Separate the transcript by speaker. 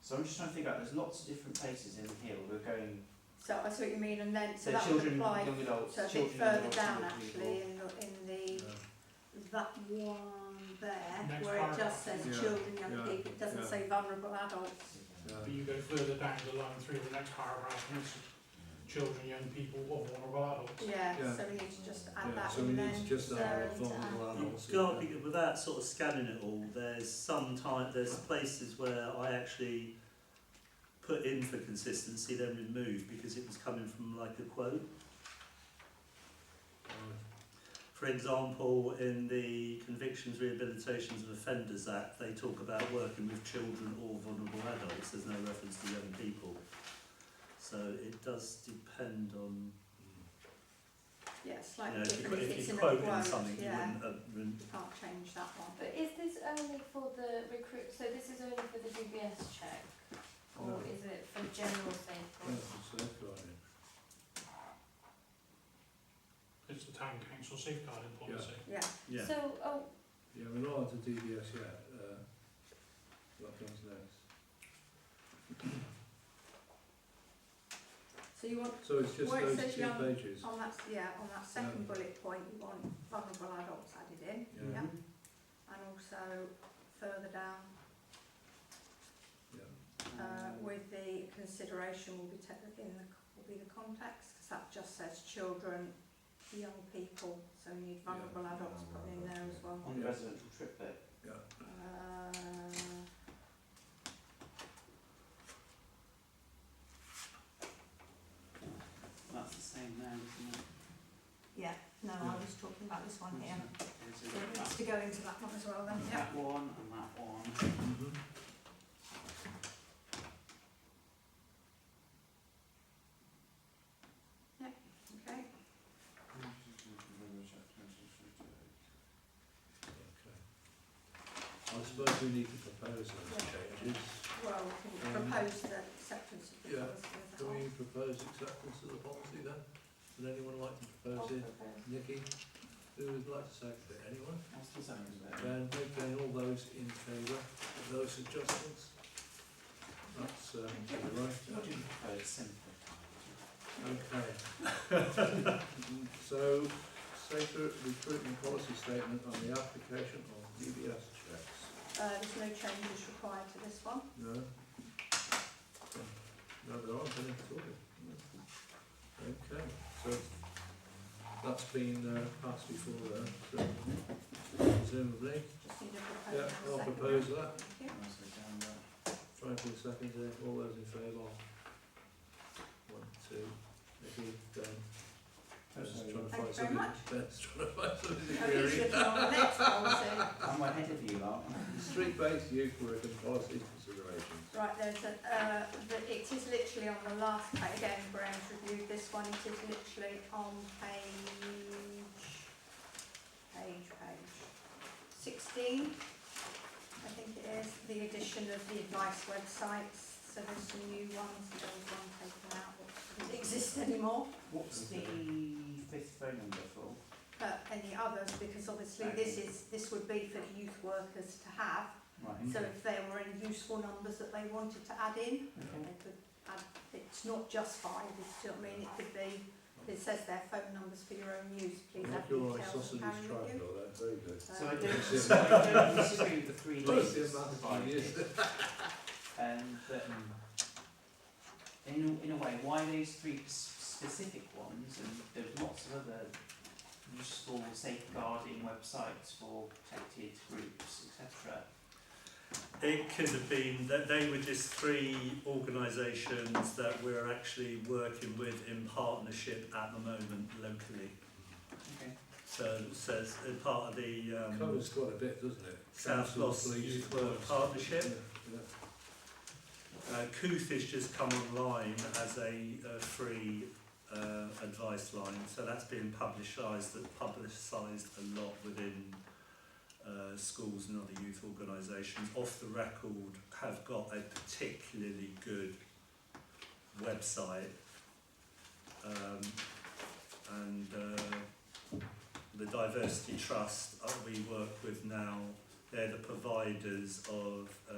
Speaker 1: So I'm just trying to figure out, there's lots of different places in here where we're going,
Speaker 2: So I see what you mean, and then, so
Speaker 1: so
Speaker 2: that would
Speaker 1: children,
Speaker 2: apply,
Speaker 1: young adults,
Speaker 2: so a bit
Speaker 1: children, young
Speaker 2: further
Speaker 1: adults,
Speaker 2: down
Speaker 1: young
Speaker 2: actually,
Speaker 1: people.
Speaker 2: in the, in the, that one there,
Speaker 3: Next
Speaker 2: where it just
Speaker 3: paragraph.
Speaker 2: says
Speaker 4: Yeah,
Speaker 2: children, young
Speaker 4: yeah,
Speaker 2: people, it doesn't
Speaker 4: yeah.
Speaker 2: say vulnerable adults.
Speaker 3: But you go further down the line through the next paragraph, and it's children, young people, or vulnerable adults.
Speaker 2: Yeah,
Speaker 4: Yeah.
Speaker 2: so we need to just add
Speaker 4: Yeah,
Speaker 2: that
Speaker 4: so we
Speaker 2: in
Speaker 4: need
Speaker 2: then.
Speaker 4: to just add a
Speaker 2: so to add-
Speaker 4: vulnerable adults.
Speaker 5: You've got to be, without sort of scanning it all, there's some time, there's places where I actually put in for consistency, then removed because it was coming from like a quote. For example, in the Convictions, Rehabilitations and Offenders Act, they talk about working with children or vulnerable adults. There's no reference to young people. So it does depend on,
Speaker 2: Yeah,
Speaker 5: you
Speaker 2: slightly
Speaker 5: know, if you,
Speaker 2: different,
Speaker 5: qu-
Speaker 2: if
Speaker 5: if
Speaker 2: it's
Speaker 5: you
Speaker 2: in a
Speaker 5: quote in
Speaker 2: quote,
Speaker 5: something, you
Speaker 2: yeah,
Speaker 5: wouldn't, uh, wouldn't
Speaker 2: you can't change that one.
Speaker 6: But is this only for the recruit, so this is only for the DBS check?
Speaker 4: No.
Speaker 6: Or is it for general
Speaker 4: Yeah,
Speaker 6: safeguarding?
Speaker 4: for safeguarding.
Speaker 3: It's the town council safeguarding policy.
Speaker 2: Yeah,
Speaker 5: yeah.
Speaker 6: So, oh,
Speaker 4: Yeah, we're not onto DBS yet, uh, what comes next.
Speaker 2: so you want,
Speaker 4: So it's just
Speaker 2: Well, it
Speaker 4: those
Speaker 2: says
Speaker 4: two
Speaker 2: young- Oh,
Speaker 4: pages.
Speaker 2: on that, yeah, on that second bullet point, you want vulnerable adults added in,
Speaker 4: Yeah.
Speaker 2: yeah, and also further down, uh, with the consideration will be ta- in the, will be the context, because that just says children, young people, so we need vulnerable adults put in there as well.
Speaker 1: On the residential trip bit,
Speaker 2: Uh,
Speaker 1: that's the same now, isn't it?
Speaker 2: No,
Speaker 4: Yeah.
Speaker 2: I was talking about this one here.
Speaker 1: Is
Speaker 2: So it
Speaker 1: it
Speaker 2: needs
Speaker 1: that-
Speaker 2: to go into that one as well then, yeah.
Speaker 1: That one and that one.
Speaker 4: Mhm.
Speaker 2: Okay,
Speaker 4: I suppose we need to propose those changes.
Speaker 2: well, we can
Speaker 4: Um,
Speaker 2: propose the acceptance of the
Speaker 4: yeah,
Speaker 2: policy as a
Speaker 4: Can
Speaker 2: whole.
Speaker 4: we propose acceptance of the policy then? Would anyone like to
Speaker 6: I'll
Speaker 4: propose it?
Speaker 6: propose.
Speaker 4: Nikki, who would like to second it? Anyone?
Speaker 1: What's the second bit?
Speaker 4: Then, then all those in favour of those adjustments? That's, uh, to the
Speaker 1: You're
Speaker 4: right.
Speaker 1: doing proposed simplified.
Speaker 4: Okay. So, safer recruitment policy statement on the application of DBS checks.
Speaker 2: Uh, there's no changes required to this one.
Speaker 4: No? No, there aren't any at all. Okay, so that's been uh, passed before then, so presumably.
Speaker 2: Just need a proposal.
Speaker 4: Yeah,
Speaker 2: and a
Speaker 4: I'll
Speaker 2: second.
Speaker 4: propose that.
Speaker 2: Thank you.
Speaker 1: Nicely done, that.
Speaker 4: Try for a second there, all those in favour? One, two, Nikki, Dan. Ben's
Speaker 1: Okay.
Speaker 4: trying to
Speaker 2: Thank you very
Speaker 4: find something,
Speaker 2: much.
Speaker 4: Ben's trying to find something
Speaker 2: Okay,
Speaker 4: to
Speaker 2: should
Speaker 4: query.
Speaker 2: we on the next policy?
Speaker 1: I'm ahead of you, lot.
Speaker 4: Street-based youth work and policy considerations.
Speaker 2: Right, there's a, uh, the, it is literally on the last page, again, Graham's reviewed this one, it is literally on page, page, page sixteen, I think it is, the addition of the advice websites, so there's some new ones, there was one taken out, which doesn't exist anymore,
Speaker 1: What's the fifth phone number for?
Speaker 2: but any others, because obviously this is, this would be for the youth workers to have,
Speaker 1: Right.
Speaker 2: so if there were any useful numbers that they wanted to add in,
Speaker 1: Okay.
Speaker 2: They could add, it's not just five, it's, do you know what I mean, it could be, it says their phone numbers for your own use, please add
Speaker 4: Make your eye
Speaker 2: details and
Speaker 4: sausages
Speaker 2: carry
Speaker 4: triangle
Speaker 2: with you.
Speaker 4: there, very good.
Speaker 1: So I
Speaker 2: Um,
Speaker 1: don't, so I don't disagree with the three
Speaker 4: Look,
Speaker 1: days
Speaker 4: the amount of years.
Speaker 1: provided. Um, but in, a- in a way, why those three s- specific ones? And there's lots of other useful safeguarding websites for protected groups, etc.
Speaker 5: It could have been that they were just three organisations that we're actually working with in partnership at the moment locally.
Speaker 1: Okay.
Speaker 5: So it says uh, part of the um,
Speaker 4: Covers quite a bit, doesn't it?
Speaker 5: South
Speaker 4: Council,
Speaker 5: Gloss
Speaker 4: police,
Speaker 5: Youth Work
Speaker 4: Yeah,
Speaker 5: Partnership.
Speaker 4: yeah.
Speaker 5: Uh, Couth has just come online as a uh, free uh, advice line, so that's been publicised publicised a lot within uh, schools and other youth organisations. Off the record, have got a particularly good website, um, and uh, the Diversity Trust uh, we work with now, they're the providers of. Uh,